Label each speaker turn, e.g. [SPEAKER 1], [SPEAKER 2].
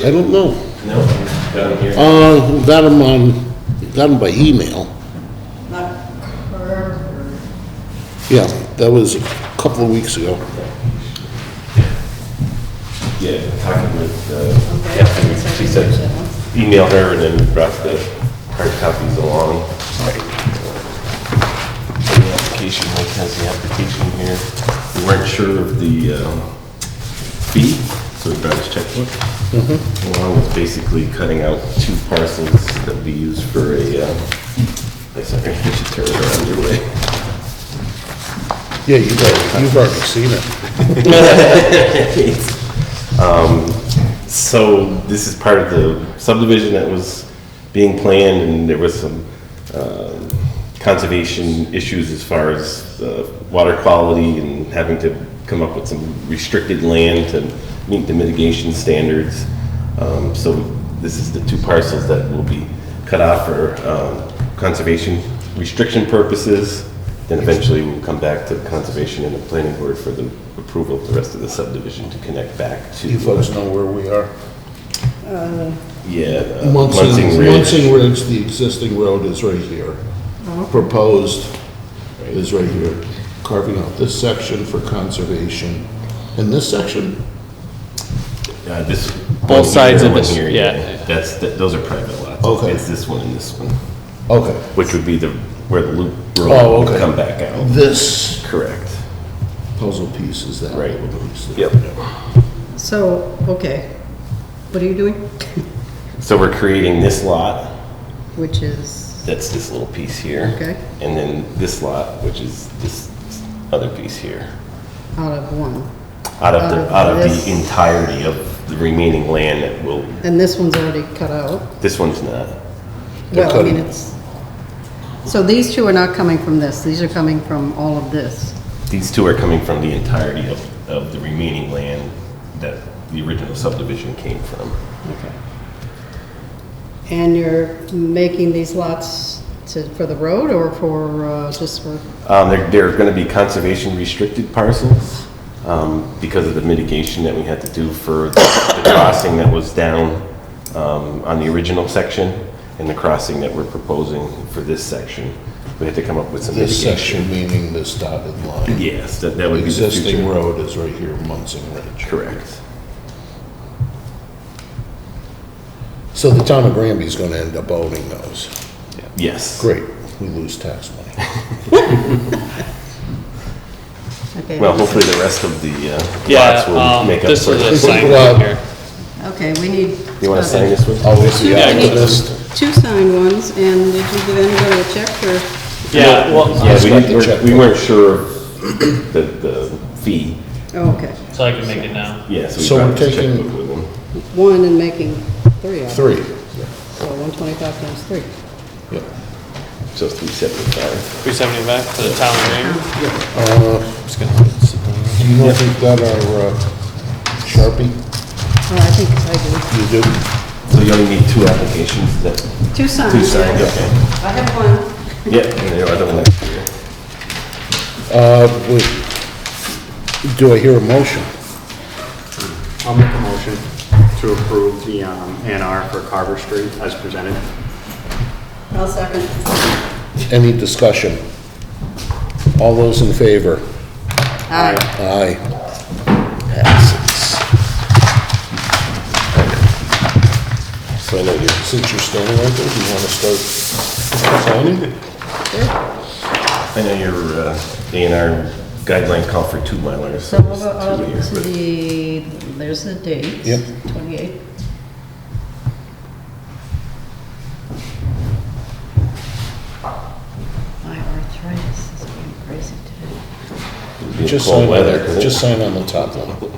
[SPEAKER 1] I don't know.
[SPEAKER 2] No, down here.
[SPEAKER 1] Uh, we got them on, got them by email.
[SPEAKER 3] Not her, or,
[SPEAKER 1] Yeah, that was a couple of weeks ago.
[SPEAKER 2] Yeah, talking with, uh,
[SPEAKER 3] okay.
[SPEAKER 2] Catherine, she said, email her and then brought the hard copies along. And The application, Mike has the application here. We weren't sure of the, um, fee, so we brought his checkbook. Along with basically cutting out two parcels that we use for a, um, I sorry, I should turn it around your way.
[SPEAKER 1] Yeah, you've already, you've already seen it.
[SPEAKER 2] So this is part of the subdivision that was being planned, and there was some um, conservation issues as far as uh, water quality and having to come up with some restricted land to meet the mitigation standards. Um, So this is the two parcels that will be cut off for um, conservation restriction purposes. Then eventually we'll come back to conservation and the planning board for the approval of the rest of the subdivision to connect back to.
[SPEAKER 1] You folks know where we are.
[SPEAKER 2] Yeah. uh,
[SPEAKER 1] Munson, Munson Ridge, the existing road is right here. Proposed is right here, carving out this section for conservation. And this section,
[SPEAKER 2] Uh, This.
[SPEAKER 4] Both sides of
[SPEAKER 2] one
[SPEAKER 4] this,
[SPEAKER 2] here,
[SPEAKER 4] yeah.
[SPEAKER 2] That's, th- those are private lots.
[SPEAKER 1] Okay.
[SPEAKER 2] It's this one and this one,
[SPEAKER 1] okay,
[SPEAKER 2] which would be the, where the loop
[SPEAKER 1] Oh,
[SPEAKER 2] road would
[SPEAKER 1] okay.
[SPEAKER 2] come back out.
[SPEAKER 1] this
[SPEAKER 2] Correct.
[SPEAKER 1] puzzle piece is that
[SPEAKER 2] Right.
[SPEAKER 1] little piece.
[SPEAKER 2] Yep.
[SPEAKER 3] So, okay, what are you doing?
[SPEAKER 2] So we're creating this lot,
[SPEAKER 3] Which is,
[SPEAKER 2] that's this little piece here.
[SPEAKER 3] Okay.
[SPEAKER 2] And then this lot, which is this other piece here.
[SPEAKER 3] out of one,
[SPEAKER 2] Out of
[SPEAKER 3] Out of
[SPEAKER 1] Uh,
[SPEAKER 2] the, out of
[SPEAKER 3] this.
[SPEAKER 2] the entirety of the remaining land that will,
[SPEAKER 3] and this one's already cut out.
[SPEAKER 2] this one's not.
[SPEAKER 1] They're
[SPEAKER 3] Well, I mean,
[SPEAKER 1] cutting.
[SPEAKER 3] it's, so these two are not coming from this, these are coming from all of this.
[SPEAKER 2] These two are coming from the entirety of, of the remaining land that the original subdivision came from.
[SPEAKER 3] Okay. And you're making these lots to, for the road or for, uh, just for,
[SPEAKER 2] Um, they're, they're gonna be conservation restricted parcels, um, because of the mitigation that we had to do for the crossing that was down, um, on the original section and the crossing that we're proposing for this section. We had to come up with some
[SPEAKER 1] This
[SPEAKER 2] mitigation.
[SPEAKER 1] section meaning this dotted line.
[SPEAKER 2] Yes, that, that would be the
[SPEAKER 1] Existing
[SPEAKER 2] future.
[SPEAKER 1] road is right here, Munson Ridge.
[SPEAKER 2] Correct.
[SPEAKER 1] So the town of Granby's gonna end up owning those.
[SPEAKER 2] Yes.
[SPEAKER 1] Great, we lose tax money.
[SPEAKER 3] okay.
[SPEAKER 2] Well, hopefully the rest of the, uh,
[SPEAKER 4] Yeah,
[SPEAKER 2] lots will
[SPEAKER 4] um,
[SPEAKER 2] make up
[SPEAKER 4] this
[SPEAKER 2] for
[SPEAKER 4] is a
[SPEAKER 2] it.
[SPEAKER 4] sign
[SPEAKER 1] Well-
[SPEAKER 4] here.
[SPEAKER 3] Okay, we need.
[SPEAKER 2] You wanna sign this one?
[SPEAKER 1] Obviously,
[SPEAKER 4] Yeah,
[SPEAKER 3] Yeah, we need
[SPEAKER 1] activist.
[SPEAKER 3] Two signed ones, and did you give anybody a check for,
[SPEAKER 4] Yeah, well,
[SPEAKER 2] Yeah, we
[SPEAKER 1] Scott, the
[SPEAKER 2] didn't- we're- we
[SPEAKER 1] checkbook.
[SPEAKER 2] weren't sure of the, the fee.
[SPEAKER 3] oh, okay,
[SPEAKER 4] so I can make it now.
[SPEAKER 2] Yeah, so we
[SPEAKER 1] So we're
[SPEAKER 2] brought this
[SPEAKER 1] taking-
[SPEAKER 2] checkbook with them.
[SPEAKER 3] one and making three of them.
[SPEAKER 1] Three,
[SPEAKER 3] So one twenty-five times three. Oh,
[SPEAKER 1] yep.
[SPEAKER 2] So three seventy-five.
[SPEAKER 4] Three seventy-five for the town green.
[SPEAKER 1] Do you know if we've got our uh, Sharpie?
[SPEAKER 3] Oh, I think I
[SPEAKER 1] You do?
[SPEAKER 2] So you only need two applications, is that?
[SPEAKER 3] do. Two signed.
[SPEAKER 2] Two signed,
[SPEAKER 3] yes.
[SPEAKER 2] okay.
[SPEAKER 3] I have one.
[SPEAKER 2] Yeah, and the other one next year.
[SPEAKER 1] Uh, wait. Do I hear a motion?
[SPEAKER 5] I'll make a motion to approve the um, A and R for Carver Street as presented.
[SPEAKER 3] I'll second.
[SPEAKER 1] Any discussion? All those in favor?
[SPEAKER 3] Aye.
[SPEAKER 1] Aye. Passes.
[SPEAKER 2] So I know you're,
[SPEAKER 1] Since you're still in, do you want to start signing?
[SPEAKER 2] I know your, uh, A and R guidelines call for two milers.
[SPEAKER 3] So we'll
[SPEAKER 2] it's
[SPEAKER 3] go up
[SPEAKER 2] two a year,
[SPEAKER 3] to
[SPEAKER 2] but-
[SPEAKER 3] the, there's the dates.
[SPEAKER 1] Yep.
[SPEAKER 3] Twenty-eight. My arthritis is going crazy today.
[SPEAKER 2] it'd be
[SPEAKER 1] Just
[SPEAKER 2] cold
[SPEAKER 1] sign,
[SPEAKER 2] weather, 'cause it-
[SPEAKER 1] just sign on the top one.